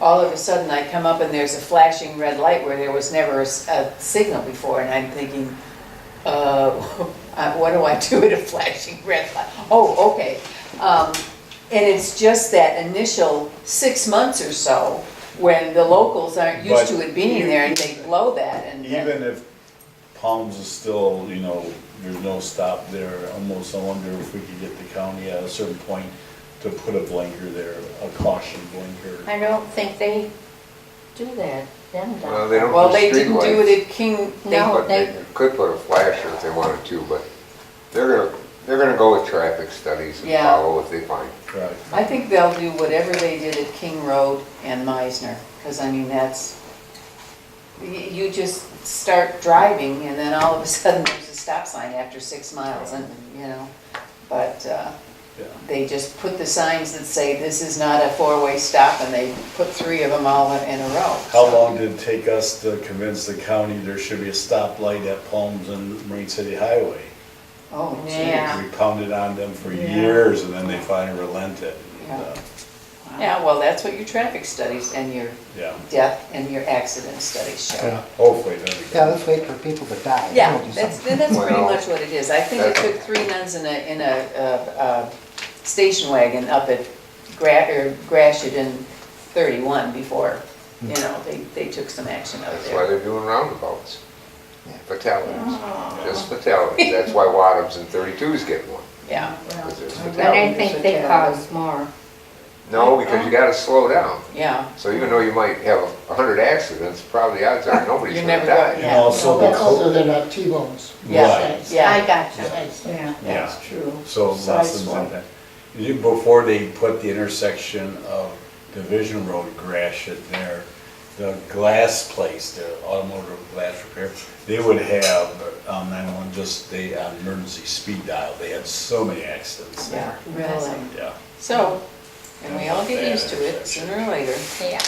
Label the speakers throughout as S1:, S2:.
S1: all of a sudden I come up and there's a flashing red light where there was never a, s- a signal before, and I'm thinking, uh, uh, what do I do at a flashing red light? Oh, okay. Um, and it's just that initial six months or so when the locals aren't used
S2: But
S1: to it being there and they blow that and.
S2: Even if Palms is still, you know, there's no stop there, almost I wonder if we could get the county at a certain point to put a blinker there, a caution blinker.
S3: I don't think they do that, them
S4: Well,
S3: down
S4: they
S3: there.
S4: don't
S1: Well, they
S4: do
S1: didn't do
S4: streetlights.
S1: it at King, they,
S3: No.
S4: But they
S3: they-
S4: could put a flasher if they wanted to, but they're gonna, they're gonna go with traffic studies and
S1: Yeah.
S4: follow what they find.
S2: Right.
S1: I think they'll do whatever they did at King Road and Meisner, because I mean, that's, y- you just start driving and then all of a sudden there's a stop sign after six miles and, you know, but, uh,
S2: Yeah.
S1: they just put the signs that say this is not a four-way stop and they put three of them all in a row.
S2: How
S1: so.
S2: long did it take us to convince the county there should be a stoplight at Palms and Marine City Highway?
S1: Oh, gee.
S3: Yeah.
S2: We pounded on them for
S1: Yeah.
S2: years and then they finally relented.
S1: Yeah.
S2: Uh,
S1: Yeah, well, that's what your traffic studies and your
S2: Yeah,
S1: death and your accident studies show.
S5: Yeah.
S2: hopefully that'll be.
S5: Yeah, let's wait for people to die.
S1: Yeah,
S5: We'll do
S1: that's,
S5: something.
S1: that's pretty
S4: Well-
S1: much what it is. I think it took three nuns in a, in a, uh, uh, station wagon up at Gra, or Gratiot in thirty-one before, you know, they, they took some action out
S4: Hmm. That's why
S1: there.
S4: they're doing roundabouts,
S5: Yeah.
S4: fatalities,
S1: Oh.
S4: just fatalities. That's why Wadums and thirty-twos get one,
S1: Yeah,
S4: because there's
S3: But I
S4: fatalities.
S3: think they cause more.
S4: No, because you gotta slow down.
S1: yeah.
S4: So even though you might have a hundred accidents, probably odds are nobody's
S1: You're
S4: gonna
S1: never going-
S4: die.
S2: And also the.
S6: That's also they're not T-bones.
S2: Yeah.
S6: Right.
S1: Yeah.
S3: I got you.
S6: Nice.
S2: Yeah.
S1: true.
S2: So
S1: Size
S2: less than
S1: one.
S2: one. You- Before they put the intersection of Division Road, Gratiot there, the glass place, the automotive glass repair, they would have, um, nine-one, just they, on emergency speed dial, they had so many accidents
S1: Yeah,
S2: there.
S1: really.
S2: Yeah.
S1: So, and we all get used to it sooner or later.
S3: Yeah,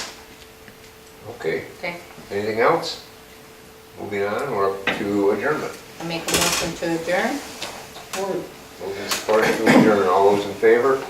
S4: Okay,
S3: okay.
S4: anything else? Moving on, we're up to adjournment.
S3: I make a motion to adjourn?
S4: Moving to adjourn, all those in favor?